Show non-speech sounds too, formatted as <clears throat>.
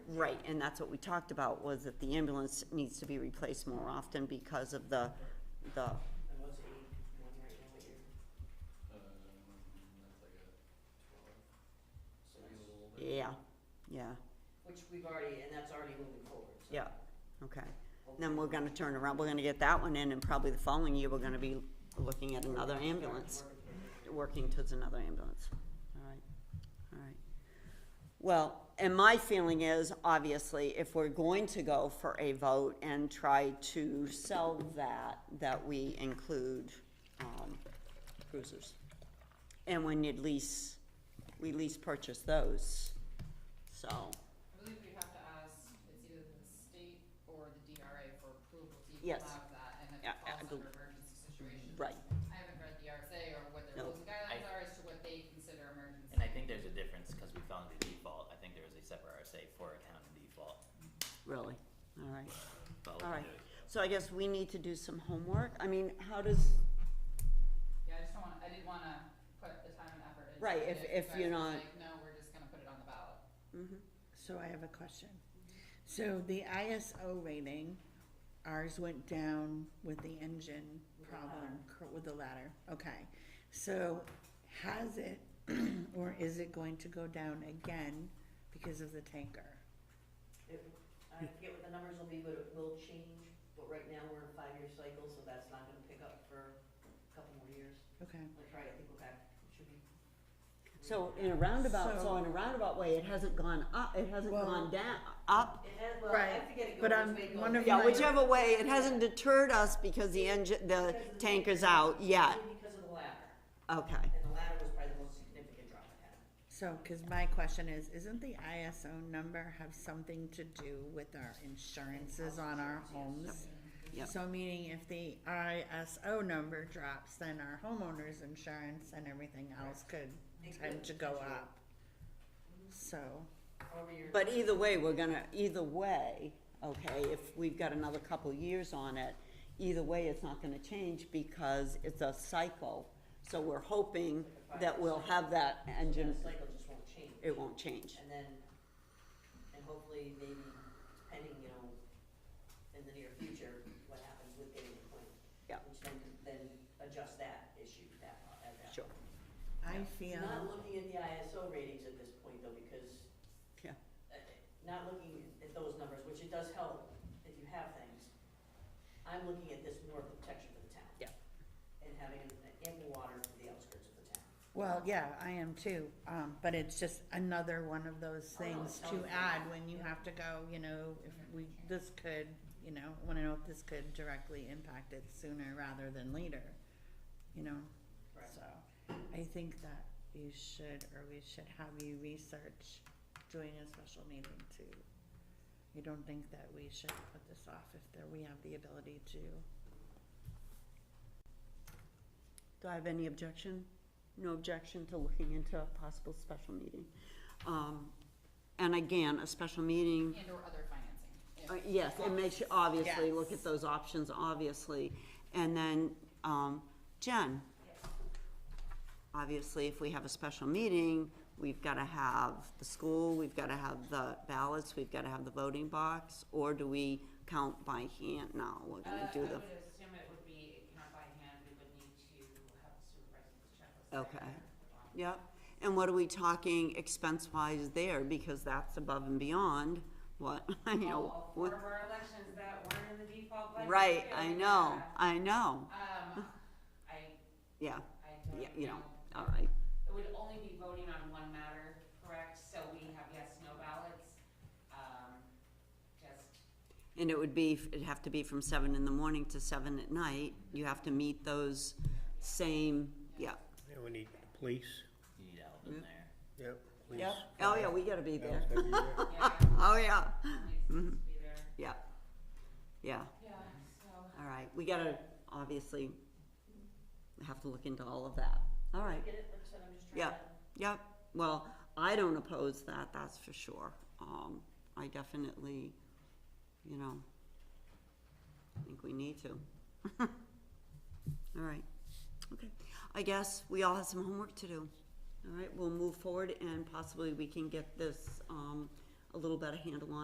Right, and that's what we talked about, was that the ambulance needs to be replaced more often because of the, the, And what's eight one right now here? So that's- yeah, yeah, Which we've already, and that's already moving forward, so. yeah, okay. Then we're gonna turn around, we're gonna get that one in, and probably the following year, we're gonna be looking at another ambulance, working towards another ambulance, all right, all right. Well, and my feeling is, obviously, if we're going to go for a vote and try to sell that, that we include, um, cruisers. And when you lease, we lease purchase those, so, I believe we have to ask, it's either the state or the DRA for approval to even Yes. allow that, and if Yeah, it I- I falls believe- under emergency situations. right, I haven't read the RSA or what their No. rules and guidelines are as to what they consider emergency. And I think there's a difference, cause we found the default, I think there was a separate RSA for account and default, really, all right. but we All right, can do it. so I guess we need to do some homework, I mean, how does, Yeah, I just don't wanna, I didn't wanna put the time and effort into it. Right, if- if I you're was not- Like, no, we're just gonna put it on the ballot. So I have a question. So the ISO rating, ours went down with the engine problem, cor- with the ladder, okay. So has it, <clears throat> or is it going to go down again because of the tanker? It- I forget what the numbers will be, but it will change, but right now we're in a five-year cycle, so that's not gonna pick up for a couple more years. Okay, I'll try, I think we're back, it should be. so in a roundabout, so So- in a roundabout way, it hasn't gone up, it hasn't Well- gone down, up. It has, well, I Right, have to get it but going, I'm it's way wondering- Yeah, Right. whichever way, it hasn't deterred us because the engine, the tanker's out yet, Because of the ladder, okay, and the ladder was probably the most significant drop it had. so, cause my question is, isn't the ISO number have something to do with our insurances on our homes? Yep. So meaning if the ISO number drops, then our homeowner's insurance and everything else could It tend could to go potentially. up. So, However, you're. but either way, we're gonna, either way, okay, if we've got another couple years on it, either way, it's not gonna change because it's a cycle, so we're hoping that we'll have that engine, That cycle just won't change. it won't change. And then, and hopefully maybe, depending, you know, in the near future, what happens with getting the plan. Yeah. Which then, then adjust that issue, that, po- at that. Sure, I feel, Not looking at the ISO ratings at this point though, because, yeah. uh, not looking at those numbers, which it does help if you have things. I'm looking at this more of a protection for the town. Yeah. And having ample water for the outskirts of the town. well, yeah, I am too, um, but it's just another one of those Oh, no, things it's to totally add fine. when you Yeah. have to go, you know, if we, this could, you know, I wanna know if this could directly impact it sooner rather than later, you know? Correct. So, I think that you should, or we should have you research doing a special meeting too. You don't think that we should put this off if there, we have the ability to? Do I have any objection? No objection to looking into a possible special meeting. Um, and again, a special meeting, And or other financing. if- uh, yes, it makes you obviously look at Yes. those options, obviously. And then, um, Jen? Obviously, if we have a special meeting, we've gotta have the school, we've gotta have the ballots, we've gotta have the voting box, or do we count by hand? No, we're gonna do the, Uh, I would assume it would be count by hand, we would need to have the supervisor's checklist. Okay. right there at the bottom. Yep, and what are we talking expense-wise there, because that's above and beyond what, <laughs> I know, All four what, of our elections that weren't in the default budget. right, we I already know, had. I know, Um, I, yeah, I yeah, don't you know, know. all right, It would only be voting on one matter, correct? So we have yes, no ballots, um, just and it would be, it'd have to be from seven in the morning to seven at night, you have to meet those same, yeah. Yeah, we need police, You need help Mm. in there. yep, police. Yep. Oh, yeah, we gotta be there, That's gotta be there. Yeah, oh, yeah, needs to Mm-hmm. be there. yeah, yeah, Yeah, so. all right, we gotta, obviously, have to look into all of that, all right. Get it, like I said, I'm just trying Yeah. to. Yep, well, I don't oppose that, that's for sure. Um, I definitely, you know, think we need to. <laughs> All right, okay. I guess we all have some homework to do. All right, we'll move forward and possibly we can get this, um, a little better handle on.